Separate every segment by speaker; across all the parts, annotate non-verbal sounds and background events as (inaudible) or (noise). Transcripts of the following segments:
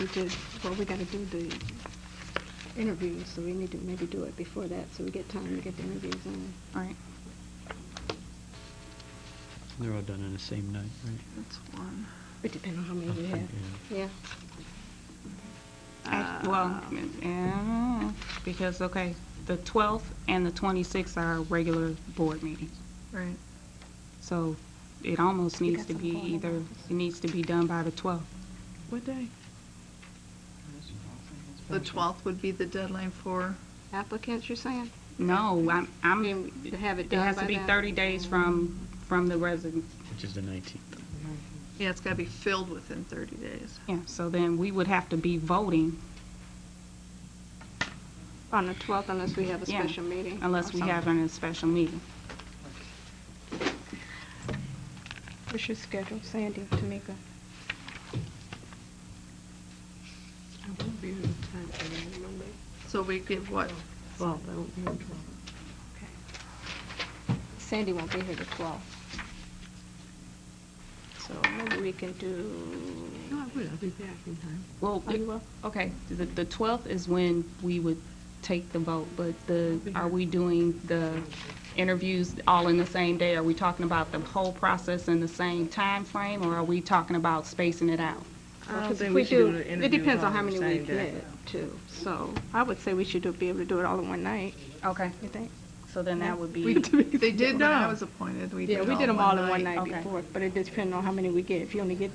Speaker 1: we did, well, we gotta do the interviews, so we need to maybe do it before that, so we get time to get the interviews in.
Speaker 2: All right,
Speaker 3: They're all done on the same night, right?
Speaker 2: that's one.
Speaker 1: It depends on how many we
Speaker 3: Okay,
Speaker 1: have. Yeah.
Speaker 2: Act- Well,
Speaker 1: Um,
Speaker 2: yeah, because, okay, the 12th and the 26th are regular board meetings.
Speaker 4: Right.
Speaker 2: So it almost needs
Speaker 1: got
Speaker 2: to be
Speaker 1: something going on.
Speaker 2: either, it needs to be done by the 12th.
Speaker 4: What day? The 12th would be the deadline for,
Speaker 1: Applicants, you're saying?
Speaker 2: No, I'm, I'm,
Speaker 1: Can we have it
Speaker 2: it
Speaker 1: done
Speaker 2: has to
Speaker 1: by
Speaker 2: be
Speaker 1: then?
Speaker 2: 30 days from, from the resident.
Speaker 3: Which is the 19th.
Speaker 4: yeah, it's got to be filled within 30 days.
Speaker 2: Yeah, so then we would have to be voting
Speaker 1: On the twelfth, unless we have a
Speaker 2: Yeah,
Speaker 1: special meeting. or
Speaker 2: unless we
Speaker 1: something.
Speaker 2: have a special meeting.
Speaker 1: What's your schedule, Sandy, Tamika?
Speaker 5: I won't be here in time for that Monday.
Speaker 4: So we give what,
Speaker 5: Well, I won't be here until
Speaker 1: Sandy won't be here the twelfth. So maybe we can
Speaker 5: No,
Speaker 1: do,
Speaker 5: I will, I'll be back in time.
Speaker 2: Well,
Speaker 1: Are you up?
Speaker 2: okay, the, the 12th is when we would take the vote, but the, are we doing the interviews all in the same day? Are we talking about the whole process in the same time frame, or are we talking about spacing it out?
Speaker 5: I don't
Speaker 1: because
Speaker 5: think we
Speaker 1: if Um, we
Speaker 5: should do
Speaker 1: do,
Speaker 5: the
Speaker 1: it
Speaker 5: interviews
Speaker 1: depends on
Speaker 5: all
Speaker 1: how
Speaker 5: on the
Speaker 1: many
Speaker 5: same
Speaker 1: we
Speaker 5: day.
Speaker 1: get too. So I would say we should do- be able to do it all in one night,
Speaker 2: Okay,
Speaker 1: you think?
Speaker 2: so then that would
Speaker 4: we,
Speaker 2: be,
Speaker 4: they did when I was appointed, we did
Speaker 1: Yeah, we did them all in one night
Speaker 2: Okay.
Speaker 1: before, but it depends on how many we get. If you only get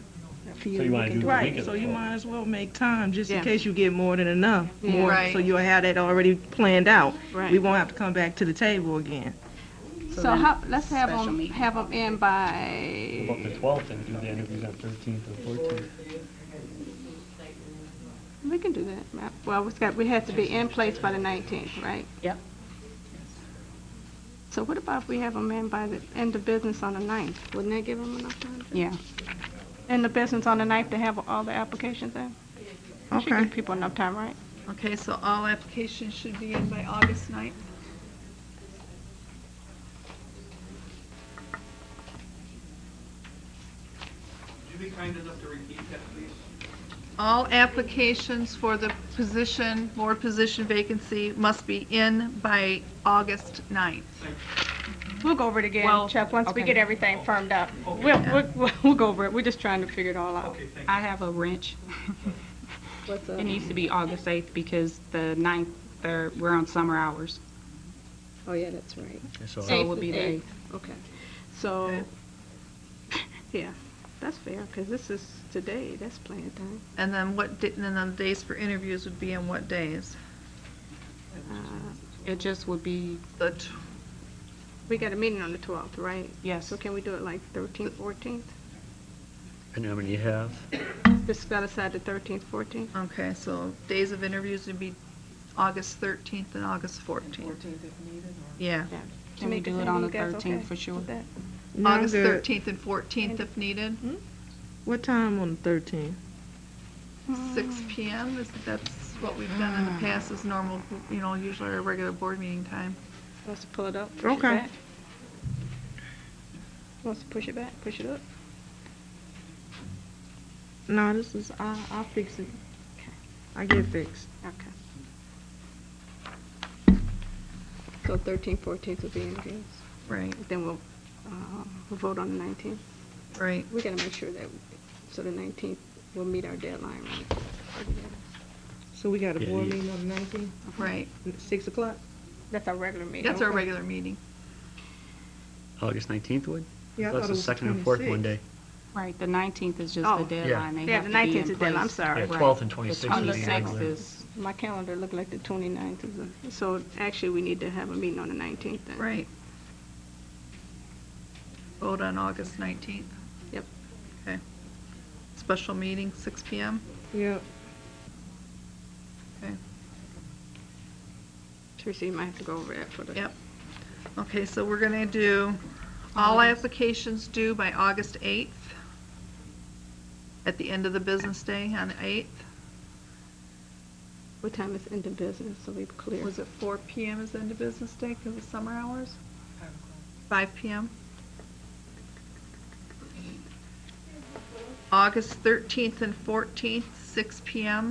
Speaker 1: a few,
Speaker 6: So you
Speaker 1: we
Speaker 6: wanna
Speaker 1: can
Speaker 6: do
Speaker 1: do
Speaker 6: the
Speaker 1: it.
Speaker 6: weekend?
Speaker 7: Right, so you might as well make time, just
Speaker 1: Yeah.
Speaker 7: in case you get more than enough.
Speaker 1: Yeah.
Speaker 7: more,
Speaker 4: Right.
Speaker 7: So you'll have that already planned out.
Speaker 1: Right.
Speaker 7: We won't have to come back to the table again.
Speaker 2: So
Speaker 1: So
Speaker 2: then
Speaker 1: how, let's have
Speaker 2: special
Speaker 1: them,
Speaker 2: meeting.
Speaker 1: have them in by,
Speaker 6: About the 12th and do the interviews on 13th and 14th.
Speaker 1: we can do that. Well, we've got, we have to be in place by the nineteenth, right?
Speaker 2: Yep.
Speaker 1: So what about if we have them in by the end of business on the ninth? Wouldn't that give them enough time?
Speaker 2: yeah.
Speaker 1: End of business on the ninth to have all the applications in? That Should give people enough time, right?
Speaker 4: Okay, so all applications should be in by August 9th?
Speaker 8: Would you be kind enough to repeat that, please?
Speaker 4: All applications for the position, board position vacancy must be in by August 9th.
Speaker 1: We'll go over it again,
Speaker 2: Well,
Speaker 1: Chuck, once we
Speaker 2: okay.
Speaker 1: get everything firmed up. We'll, we'll, we'll go over it. We're just trying to figure it all out.
Speaker 8: Okay, thank you.
Speaker 2: I have a wrench.
Speaker 1: What's
Speaker 2: It needs to be August 8th because the 9th, they're- we're on summer hours,
Speaker 1: Oh, yeah, that's right.
Speaker 3: That's all.
Speaker 2: so it would be the
Speaker 1: Eighth is
Speaker 2: 8th.
Speaker 1: Okay, so, (laughs) yeah, that's fair, because this is today, that's plenty of time.
Speaker 4: And then what, di- and then the days for interviews would be in what days?
Speaker 1: Uh,
Speaker 2: It just would be,
Speaker 4: The, tw-
Speaker 1: We got a meeting on the 12th, right?
Speaker 2: yes,
Speaker 1: So can we do it like 13th, 14th?
Speaker 2: (coughs)
Speaker 3: And how many you have?
Speaker 1: Just got aside the 13th, 14th?
Speaker 4: okay, so days of interviews would be August 13th and August 14th. Yeah,
Speaker 2: Can we
Speaker 1: Tamika,
Speaker 2: do it
Speaker 1: Sandy,
Speaker 2: on
Speaker 1: you
Speaker 2: the
Speaker 1: guys
Speaker 2: 13th
Speaker 1: okay
Speaker 2: for sure?
Speaker 1: with that?
Speaker 4: August 13th and 14th if needed,
Speaker 7: What time on the thirteenth?
Speaker 4: 6 PM, is, that's what we've done in the past, is normal, you know, usually our regular board meeting time.
Speaker 1: Let's pull it up. push it
Speaker 7: Okay.
Speaker 1: back. Wants to push it back, push it up?
Speaker 7: No, this is, I, I'll fix it. I get fixed.
Speaker 1: Okay. So 13th, 14th will be in games.
Speaker 4: Right,
Speaker 1: Then we'll, uh, we'll vote on the 19th.
Speaker 4: right.
Speaker 1: We gotta make sure that, so the 19th, we'll meet our deadline, right?
Speaker 7: So we got a
Speaker 3: Yeah,
Speaker 7: board
Speaker 3: yeah.
Speaker 7: meeting on the nineteenth,
Speaker 4: Right,
Speaker 7: six o'clock?
Speaker 1: That's our regular meeting.
Speaker 4: that's our regular meeting.
Speaker 3: August 19th would?
Speaker 7: Yeah, I
Speaker 3: That's
Speaker 7: thought it
Speaker 3: the
Speaker 7: was
Speaker 3: second and fourth
Speaker 7: 26th.
Speaker 3: Monday.
Speaker 2: Right, the 19th is just
Speaker 1: Oh.
Speaker 2: the deadline. They
Speaker 1: Yeah,
Speaker 2: have
Speaker 1: the
Speaker 2: to be in
Speaker 1: 19th is deadline, I'm
Speaker 2: place.
Speaker 1: sorry.
Speaker 3: Yeah,
Speaker 4: Right.
Speaker 3: 12th and
Speaker 2: The
Speaker 3: 26th. would be the
Speaker 2: 26th
Speaker 3: regular.
Speaker 2: is,
Speaker 1: My calendar looked like the 29th is, a- so actually, we need to have a meeting on the 19th then.
Speaker 4: Right. Vote on August 19th.
Speaker 1: Yep.
Speaker 4: Okay. Special meeting, 6 PM.
Speaker 7: Yep.
Speaker 1: Teresa, you might have to go over that for the.
Speaker 4: Yep. Okay, so we're going to do all applications due by August 8th, at the end of the business day on the 8th.
Speaker 1: What time is end of business, so we're clear.
Speaker 4: Was it 4 PM is end of business day because of summer hours? 5 PM? August 13th and 14th, 6 PM.